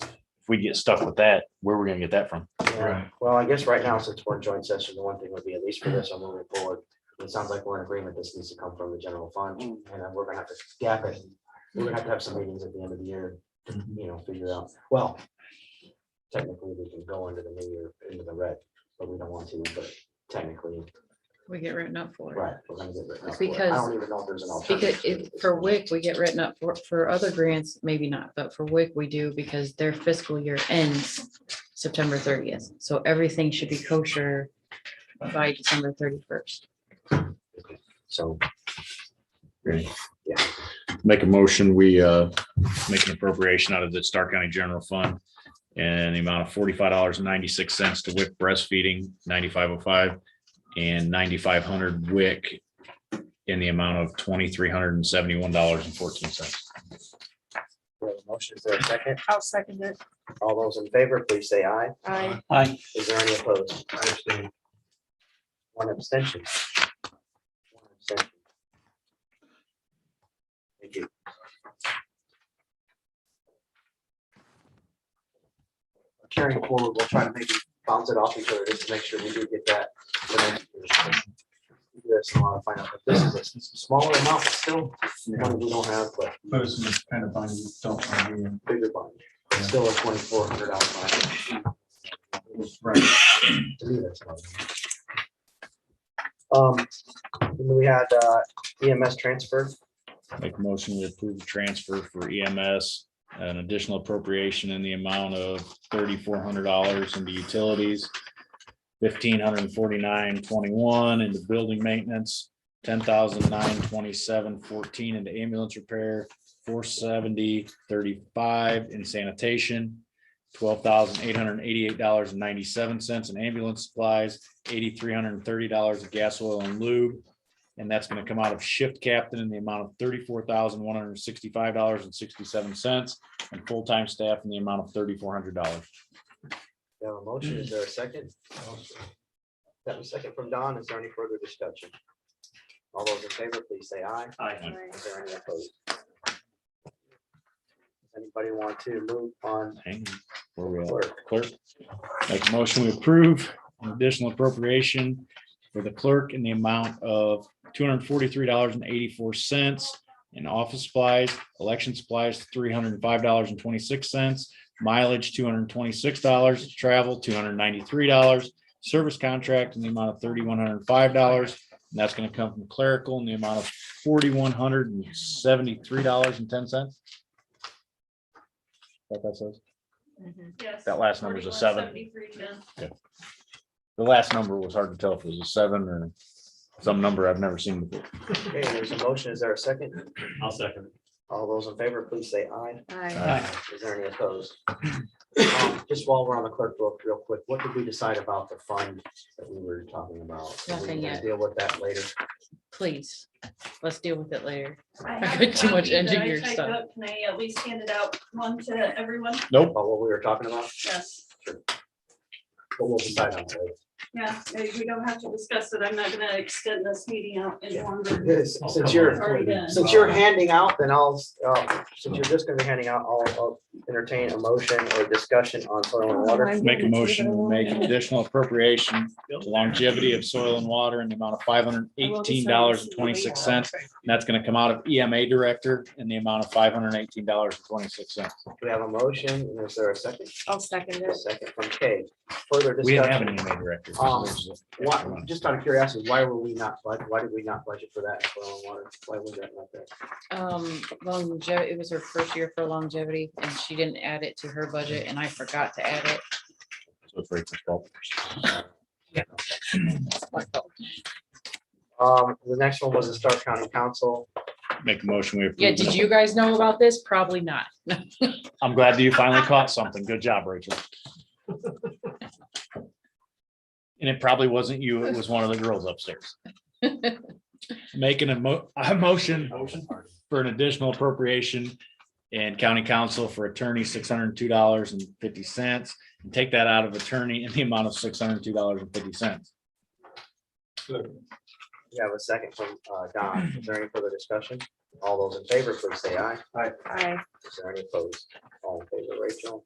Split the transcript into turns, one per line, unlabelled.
if we get stuck with that, where are we gonna get that from?
Yeah.
Right.
Well, I guess right now, since we're in joint session, the one thing would be, at least for this, I'm moving forward. It sounds like we're in agreement, this needs to come from the general fund, and
Mm.
then we're gonna have to gap it. We're gonna have to have some meetings at the end of the year, to, you know, figure out, well. Technically, we can go into the new year, into the red, but we don't want to, but technically,
We get written up for it.
right, we're gonna get written up for it. I
Because-
don't even know if there's an alternative.
Because it, for WIC, we get written up for, for other grants, maybe not, but for WIC, we do because their fiscal year ends September thirtieth. So everything should be kosher by December thirty-first.
So,
Make a motion, we uh make an appropriation out of the Star County General Fund. And the amount of forty-five dollars and ninety-six cents to WIC breastfeeding, ninety-five oh five and ninety-five hundred WIC. In the amount of twenty-three hundred and seventy-one dollars and fourteen cents.
we have a motion, is there a second?
I'll second it.
All those in favor, please say aye.
I,
Aye.
Is there any opposed?
I understand.
One abstention. One abstention. Thank you. Carrying forward, we'll try to maybe bounce it off each other just to make sure we do get that. for next year's. We do have some lot of find out, but This is a s- smaller amount still, one we don't have, but
But it's just kind of funny, you don't want to do
bigger bond, It's still a twenty-four hundred dollar bond.
it. Right.
to me, that's not- Um, and then we had uh, EMS transfer,
Make a motion, we approve the transfer for EMS. An additional appropriation in the amount of thirty-four hundred dollars into utilities. Fifteen hundred and forty-nine twenty-one into building maintenance, ten thousand nine twenty-seven fourteen into ambulance repair. Four seventy thirty-five in sanitation, twelve thousand eight hundred and eighty-eight dollars and ninety-seven cents in ambulance supplies. Eighty-three hundred and thirty dollars of gas, oil and lube. And that's gonna come out of shift captain in the amount of thirty-four thousand, one hundred and sixty-five dollars and sixty-seven cents. And full-time staff in the amount of thirty-four hundred dollars.
We have a motion, is there a second? That was second from Don, is there any further discussion? All those in favor, please say aye. Is there any opposed? Does Anybody want to move on?
Where we at?
Clerk.
Clerk, make a motion, we approve an additional appropriation for the clerk in the amount of two hundred and forty-three dollars and eighty-four cents in office supplies, election supplies, three hundred and five dollars and twenty-six cents, mileage, two hundred and twenty-six dollars, travel, two hundred and ninety-three dollars, service contract in the amount of thirty-one hundred and five dollars, and that's gonna come from clerical in the amount of forty-one hundred and seventy-three dollars and ten cents. What that says?
Yes.
That last number's a seven.
4173,
The last number was hard to tell if it was a seven or some number I've never seen before.
Okay, there's a motion, is there a second?
I'll second.
All those in favor, please say aye.
I
Uh,
Aye.
Is there any opposed? Um, Just while we're on the clerk book, real quick, what did we decide about the fund that we were talking about? Are we
Nothing
gonna
yet.
Deal with that later.
Please, let's deal with it later.
Jen.
I got too much
have a copy that I
engineer
typed
stuff.
up. Can I at least hand it out one to everyone?
Nope.
About what we were talking about,
Yes.
but we'll decide on that later.
Yeah, eh, we don't have to discuss it. I'm not gonna extend this meeting out any
Yeah.
longer.
Yes,
I'll
Since
come
you're,
on.
Already done.
since you're handing out, then I'll, uh, since you're just gonna be handing out, I'll, I'll entertain a motion or discussion on soil and
Oh,
water.
Make a motion, to make an additional appropriation to longevity of soil and water in the amount of five hundred eighteen dollars and twenty-six cents. That's gonna come out of EMA director in the amount of five hundred eighteen dollars and twenty-six cents.
We have a motion, and is there a second?
I'll second
A
it.
second from Kay. Further
We didn't have an
discussion.
EMA director.
Um, Why, just out of curiosity, why were we not, bud- why did we not budget for that in soil and water? Why was that not there?
Um, longevity, it was her first year for longevity and she didn't add it to her budget and I forgot to add it.
So it's right for twelve.
It's my fault.
Um, the next one was the Stark County Council.
Make a motion, we approve.
Yeah, did you guys know about this? Probably not.
I'm glad that you finally caught something. Good job, Rachel. And it probably wasn't you, it was one of the girls upstairs. Making a mo- a motion for an additional appropriation and county council for attorney, six hundred and two dollars and fifty cents. And take that out of attorney in the amount of six hundred and two dollars and fifty cents.
We have a second from, uh, Don. Is there any further discussion? All those in favor, please say aye.
I,
Is there any opposed? All in favor, Rachel?